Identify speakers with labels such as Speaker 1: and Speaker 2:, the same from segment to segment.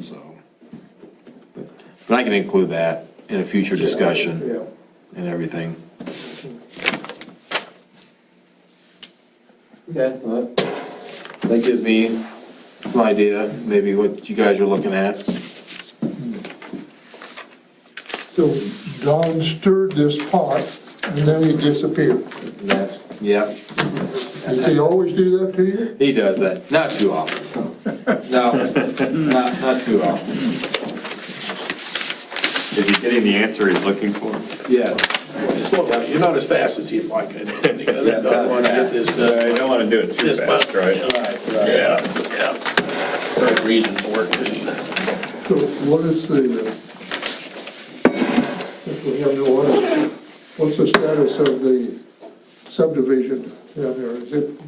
Speaker 1: so. But I can include that in a future discussion
Speaker 2: Yeah.
Speaker 1: and everything.
Speaker 2: Okay, well, that-
Speaker 1: That gives me some idea, maybe what you guys are looking at.
Speaker 3: So Don stirred this pot and then he disappeared.
Speaker 1: That's, yeah,
Speaker 3: Does he always do that to you?
Speaker 1: he does that, not too often. No, not, not too often,
Speaker 4: Is he getting the answer he's looking for?
Speaker 1: yes.
Speaker 5: Slow down, you're not as fast as you'd like, I don't think. I don't wanna get this, uh,
Speaker 4: I don't want to do it too
Speaker 5: this
Speaker 4: fast,
Speaker 5: button.
Speaker 4: right?
Speaker 5: Yeah, yeah. Third reason for it, too.
Speaker 3: So what is the, uh, if we have no order, what's the status of the subdivision down there? Is it,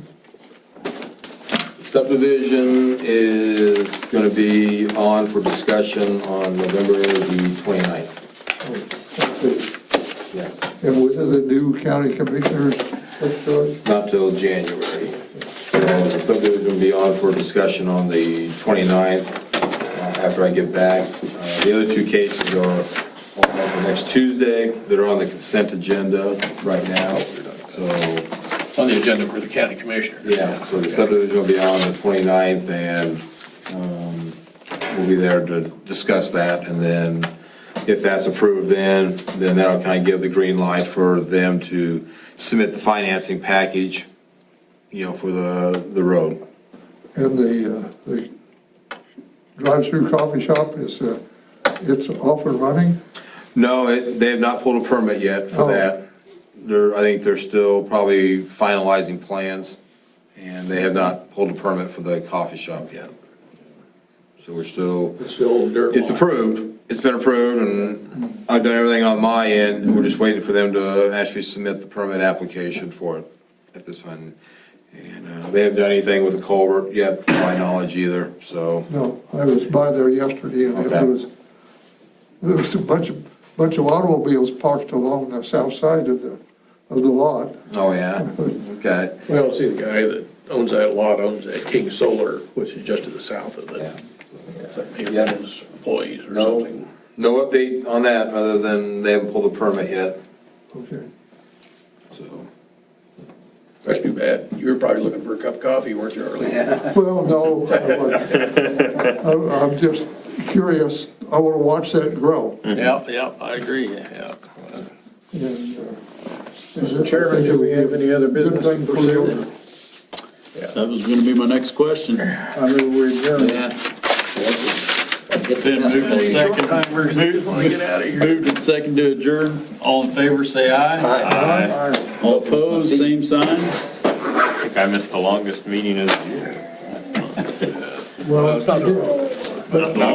Speaker 1: Subdivision is gonna be on for discussion on November the twenty-ninth,
Speaker 3: let's see,
Speaker 1: yes,
Speaker 3: oh, and was it the new county commissioners that's charged?
Speaker 1: not till January. So the subdivision will be on for discussion on the 29th. uh, after I get back. Uh, The other two cases are on for next Tuesday, that are on the consent agenda right now, so
Speaker 5: On the agenda for the county commissioner.
Speaker 1: Yeah, so the subdivision will be on the 29th, and um, we'll be there to discuss that, and then if that's approved, then, then that'll kind of give the green light for them to submit the financing package, you know, for the, the road.
Speaker 3: And the, uh, the drive-through coffee shop is, uh, it's up and running?
Speaker 1: No, it- they have not pulled a permit yet for
Speaker 3: Oh.
Speaker 1: that. They're, I think they're still probably finalizing plans, and they have not pulled a permit for the coffee shop yet. So we're still
Speaker 2: It's the old dirt
Speaker 1: It's
Speaker 2: lot.
Speaker 1: approved, it's been approved, and I've done everything on my end, we're just waiting for them to actually submit the permit application for it at this one. And uh, they haven't done anything with the culvert yet, to my knowledge either, so,
Speaker 3: No, I was by there yesterday and
Speaker 1: Okay.
Speaker 3: it was, there was a bunch of, bunch of automobiles parked along the south side of the, of the lot.
Speaker 1: oh yeah, okay,
Speaker 5: Well, see, the guy that owns that lot owns that King Solar, which is just to the south of
Speaker 1: yeah.
Speaker 5: it. So Maybe
Speaker 1: Yeah.
Speaker 5: his employees or
Speaker 1: No.
Speaker 5: something.
Speaker 1: No update on that, other than they haven't pulled a permit yet,
Speaker 3: Okay.
Speaker 1: so.
Speaker 5: That's too bad. You were probably looking for a cup of coffee, weren't you, earlier?
Speaker 3: Well, no, I wasn't. I- I'm just curious. I want to watch that grow. uh,
Speaker 5: Yeah, yeah, I agree, yeah.
Speaker 3: Mr.
Speaker 2: Mr. Chairman, do we have any other business to pursue?
Speaker 6: That was gonna be my next question.
Speaker 2: I move we adjourn.
Speaker 6: Been moved and seconded. Moved and seconded to adjourn. All in favor, say aye. Aye. All opposed, same sign.
Speaker 4: I think I missed the longest meeting of the year.
Speaker 3: Well, you did.
Speaker 4: Not the